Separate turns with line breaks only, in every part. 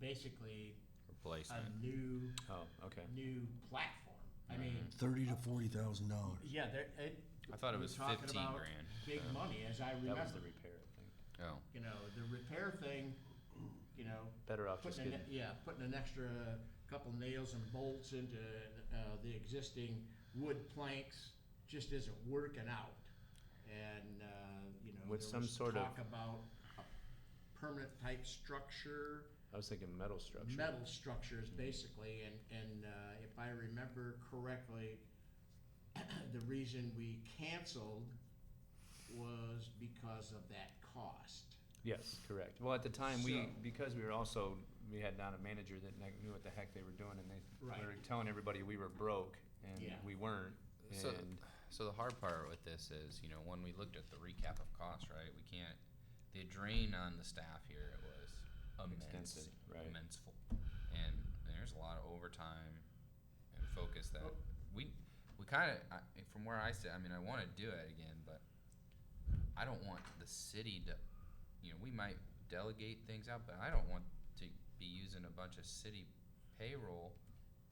basically a
replacement.
new
Oh, okay. Mm-hmm.
new platform. I mean,
Thirty to forty thousand dollars.
yeah, there. It,
I thought it
we're
was
talking
fifteen
about
grand.
Big
so
money, as I
That was
remember.
the repair, I think. Oh,
You know, the repair thing. You know,
better off Oh, just
putting
getting,
an, yeah, putting an extra couple nails and bolts into uh, the existing wood planks just isn't working out. And uh, you know,
With
there
some
was
sort of-
talk about a permanent type structure.
I was thinking metal structure.
metal structures basically, and, and uh, if I remember correctly, the reason we canceled was because of that cost.
Yes, correct. Well, at the time, we,
So-
because we were also, we had not a manager that kn- knew what the heck they were doing and they
Right.
were telling everybody we were broke and
Yeah.
we weren't.
So-
And
So the hard part with this is, you know, when we looked at the recap of costs, right? We can't. The drain on the staff here was immense,
Extensive, right.
immenseful, and there's a lot of overtime and focus that
Oh.
we we kind of from where I sit. I mean, I want to do it again, but I don't want the city to. You know, we might delegate things out, but I don't want to be using a bunch of city payroll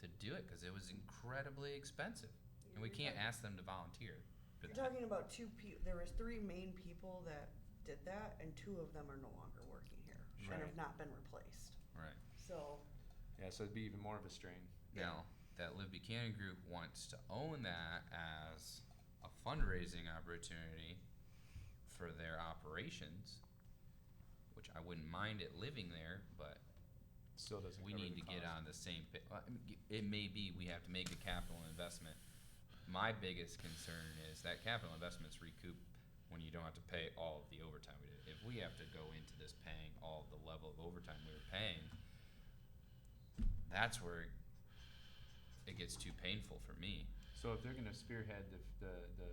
to do it because it was incredibly expensive, and we can't ask them to volunteer. for
You're
that.
talking about two people, there was three main people that did that, and two of them are no longer working here, and
Right.
have not been replaced,
Right.
so.
Yeah, so it'd be even more of a strain.
Yeah.
Now, that Live Buchanan group wants to own that as a fundraising opportunity for their operations, which I wouldn't mind it living there, but
Still doesn't.
we
cover
need
the
to get
cost.
on the same. pa- well, I mean, It may be we have to make a capital investment. My biggest concern is that capital investments recoup when you don't have to pay all of the overtime we did. If we have to go into this paying all of the level of overtime we were paying, that's where it gets too painful for me.
So if they're gonna spearhead the, f- the, the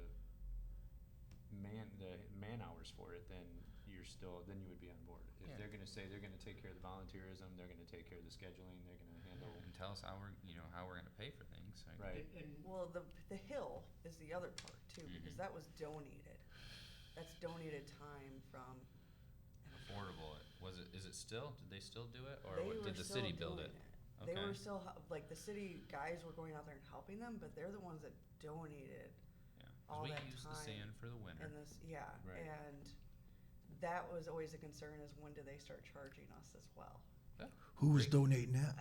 man, the man hours for it, then you're still, then you would be on board. If
Yeah.
they're gonna say they're gonna take care of the volunteerism, they're gonna take care of the scheduling, they're gonna handle,
And tell us how we're, you know, how we're gonna pay for things. like-
right?
And- and
Well, the, the hill is the other part too, because
Mhm.
that was donated, that's donated time from.
Affordable. It Was it, is it still, did they still do it or
They
what-
were
did the
still
city build
doing
it?
They
Okay.
were still, hel- like, the city guys were going out there and helping them, but they're the ones that donated
Yeah. 'Cause
all
we
that
use the
time
sand for the winter.
And this, yeah,
Right.
and that was always a concern is when do they start charging us as well?
Who was donating that?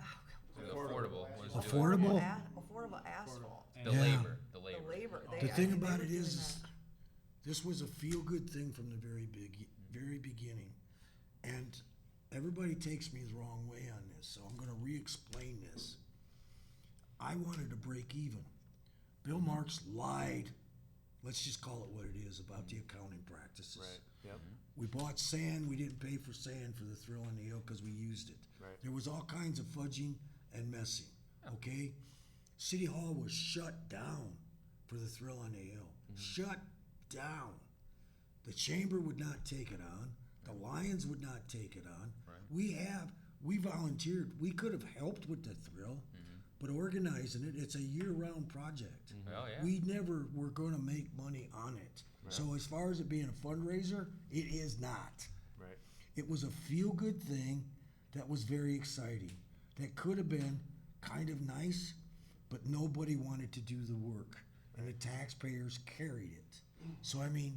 Affordable. let's do it.
Affordable?
A- Affordable asphalt,
and-
The
Yeah.
labor, the
the
labor.
labor.
The
they-
The
I
thing
mean, they
about
were
it
doing
is,
that.
is this was a feel-good thing from the very big, very beginning. And everybody takes me the wrong way on this, so I'm gonna re-explain this. I wanted to break even. Bill Marks lied, let's just call it what it is, about the accounting practices. Mm-hmm.
Right, yep,
We bought sand, we didn't pay for sand for the Thrill on the Hill because we used it.
Right.
There was all kinds of fudging and messing, okay? City Hall was shut down for the Thrill on the Hill. Shut down. The Chamber would not take it on. The Lions would not take it on. We have, we volunteered. We could have helped with the Thrill, but organizing it, it's a year round project.
Oh, yeah.
We never were going to make money on it. So as far as it being a fundraiser, it is not.
right.
It was a feel good thing that was very exciting. That could have been kind of nice, but nobody wanted to do the work and the taxpayers carried it. So I mean,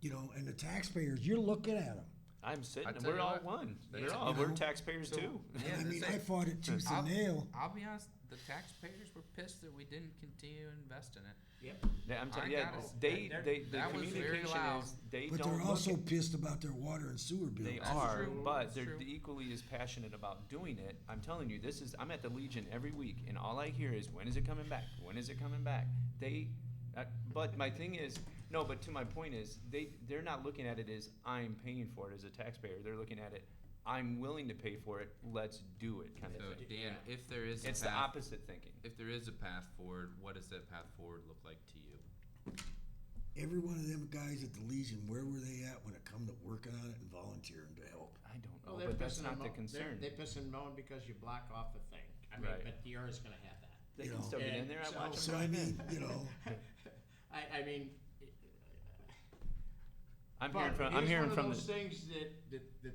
you know, and the taxpayers, you're looking at them.
I'm sitting,
tell
we're
you
all
what,
one.
there's a-
We're all, we're
No.
taxpayers
So-
too.
Yeah,
I mean,
that's
I
it.
fought it tooth
I'll-
and nail.
I'll be honest, the taxpayers were pissed that we didn't continue to invest in it.
Yep.
Yeah, I'm
I
telling, yeah,
gotta-
they,
that-
they, the
that was very
communication
loud.
is, they
But
don't
they're
look
also pissed about their water and sewer bill.
They
That's
are,
true.
but
That's
they're
true.
equally as passionate about doing it. I'm telling you, this is. I'm at the Legion every week, and all I hear is, "When is it coming back? When is it coming back?" They, uh, but my thing is, no. But to my point is, they they're not looking at it as I'm paying for it as a taxpayer. They're looking at it, I'm willing to pay for it. Let's do it, kind
So
of thing.
Dan, if there is a
It's the
path,
opposite thinking.
if there is a path forward, what does that path forward look like to you?
Every one of them guys at the Legion, where were they at when it come to working on it and volunteering to help?
I don't know,
Well, they're
but that's
pissing
not
and
the
mo-
concern.
They're, they piss and moan because you block off the thing. I mean,
Right.
but the ER is going to have that.
They
you
can
know.
still get in
And
there. I
so-
watch 'em
So I mean, you know,
I, I mean,
I'm
but
hearing from. I'm
here's
hearing
one
from
of
the.
those things that, that, that